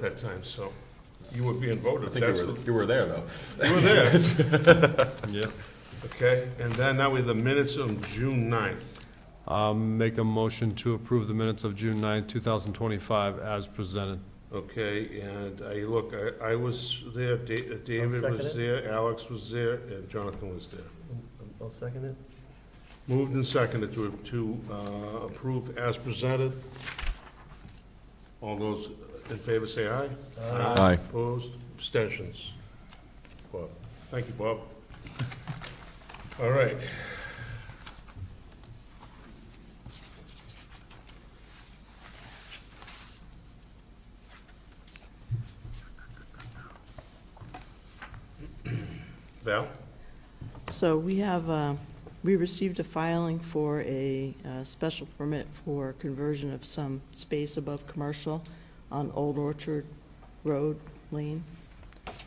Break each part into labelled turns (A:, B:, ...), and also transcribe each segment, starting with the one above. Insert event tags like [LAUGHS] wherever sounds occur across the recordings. A: that time, so you were being voted.
B: I think
A: That's
B: you were, you were there, though.
A: the- You were
B: [LAUGHS]
A: there,
C: Yeah.
A: okay? And then now we have the minutes of June 9th.
C: Um, make a motion to approve the minutes of June 9, thousand twenty-five as presented.
A: Okay, and I, look, I, I was there, Da- David
D: second
A: was
D: it.
A: there, Alex was there, and Jonathan was there.
D: I'll second it.
A: Moved and seconded to, to uh, approve as presented. All those in favor say aye.
B: Aye.
A: Opposed, abstentions. Bob, thank you, Bob. All right. Val?
E: So we have, uh, we received a filing for a uh, special permit for conversion of some space above commercial on Old Orchard Road Lane.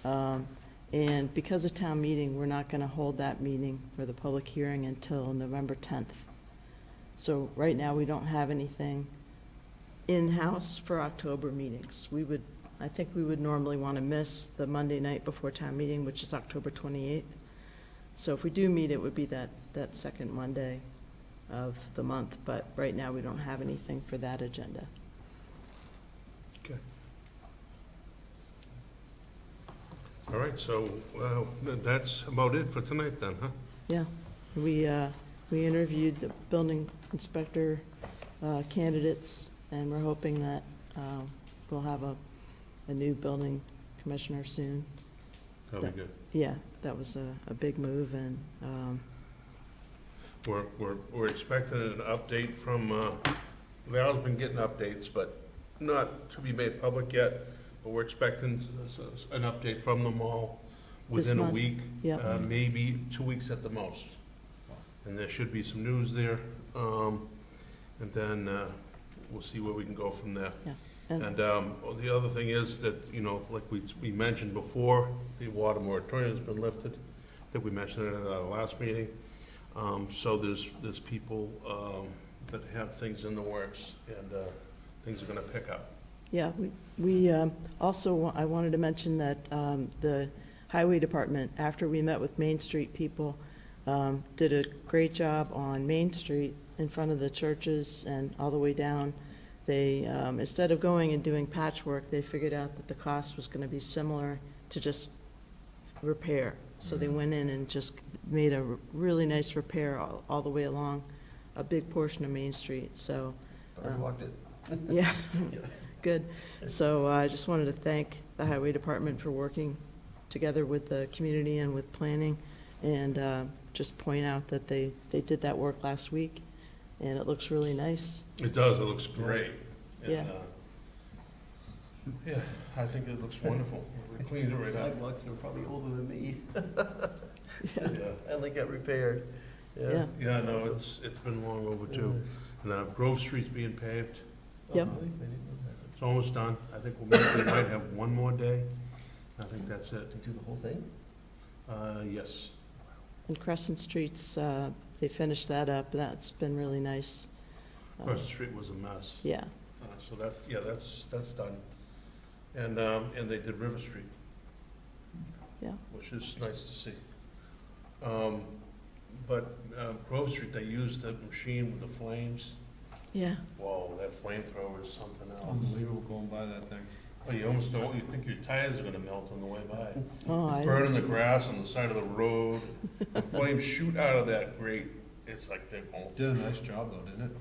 E: Um, And because of town meeting, we're not going to hold that meeting for the public hearing until November 10th. So right now, we don't have anything in-house for October meetings. We would, I think we would normally want to miss the Monday night before town meeting, which is October 28th. So if we do meet, it would be that, that second Monday of the month, but right now, we don't have anything for that agenda.
A: All right, so uh, that's about it for tonight then, huh?
E: Yeah, we, uh, we interviewed the building inspector uh, candidates, and we're hoping that um, we'll have a, a new building commissioner soon.
A: That'll be good.
E: Yeah, that was a, a big move, and, um,
A: We're, we're, we're expecting an update from, uh, Val's been getting updates, but not to be made public yet. But we're expecting s- s- an update from them all
E: This
A: within a
E: month?
A: week.
E: yeah.
A: uh, Maybe two weeks at the most. And there should be some news there. Um, and then, uh, we'll see where we can go from there.
E: Yeah, and-
A: And, um, oh, the other thing is that, you know, like we, we mentioned before, the water moratorium's been lifted. I think we mentioned it at our last meeting. Um, so there's, there's people, um, that have things in the works and, uh, things are gonna pick up.
E: Yeah, we- we um, also, wa- I wanted to mention that um, the Highway Department, after we met with Main Street people, um, did a great job on Main Street in front of the churches and all the way down. They, um, instead of going and doing patchwork, they figured out that the cost was going to be similar to just repair. So they went in and just made a really nice repair all all the way along a big portion of Main Street, so.
D: I
E: um,
D: walked it.
E: yeah, good. So uh, I just wanted to thank the Highway Department for working together with the community and with planning, and uh, just point out that they, they did that work last week, and it looks really nice.
A: It does, it looks great. And,
E: Yeah.
A: uh, Yeah, I think it looks wonderful. We cleaned it right
D: [LAUGHS]
A: up.
D: Sidewalks are probably older than me,
A: Yeah,
D: and they got repaired, uh, yeah.
E: Yeah.
A: yeah, no, it's, it's been long overdue. And uh, Grove Street's being paved,
D: Oh,
E: Yep.
D: really? I didn't know that.
A: it's almost done. I think we might, we might have one more day. I think that's it.
D: They do the whole thing?
A: Uh, yes.
E: And Crescent Streets, uh, they finished that up, that's been really nice. Uh,
A: First Street was a mess.
E: Yeah,
A: Uh, So that's, yeah, that's, that's done. And, um, and they did River Street.
E: Yeah.
A: Which is nice to see. Um, but uh, Grove Street, they used that machine with the flames.
E: yeah,
A: Whoa, that flamethrower is something else.
C: Unbelievable going by that thing.
A: Oh, you almost don't, you think your tires are gonna melt on the way by.
E: oh, I,
A: It's burning the grass on the side of the road. The flames shoot out of that grate. It's like they're going,
C: Did a nice job, though, didn't it?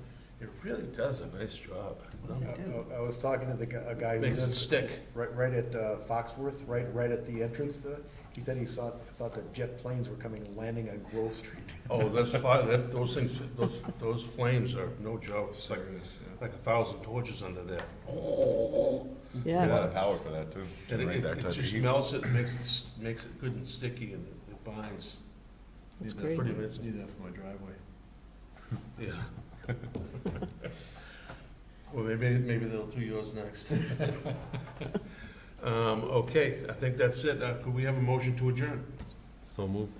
A: it really does a nice job.
D: Yes, it did.
F: I I was talking to the, gu- a guy who
A: Makes it
F: lives
A: stick.
F: right, right at uh, Foxworth, right, right at the entrance to, he said he saw, thought that jet planes were coming, and landing on Grove Street.
A: Oh, that's fire, that, those things, those, those flames are no joke, It's like, like a thousand torches under
C: [LAUGHS]
A: there.
B: A
E: yeah,
B: lot of power for that, too.
A: And
B: generate
A: it,
B: that
A: it
B: type of
A: just
B: heat.
A: melts it, makes it, s- makes it good and sticky and it binds.
E: that's
A: Yeah,
E: great.
A: Pretty amazing,
C: Need that for
A: [LAUGHS]
C: my driveway.
A: yeah. [LAUGHS] Well, maybe, maybe they'll do yours next. [LAUGHS] Um, okay, I think that's it, uh, could we have a motion to adjourn?
C: So move.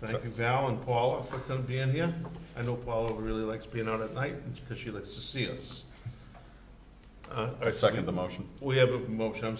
A: Thank you, Val and Paula, for them being here. I know Paula really likes being out at night, because she likes to see us. Uh,
B: I second the motion.
A: We have a motion, I'm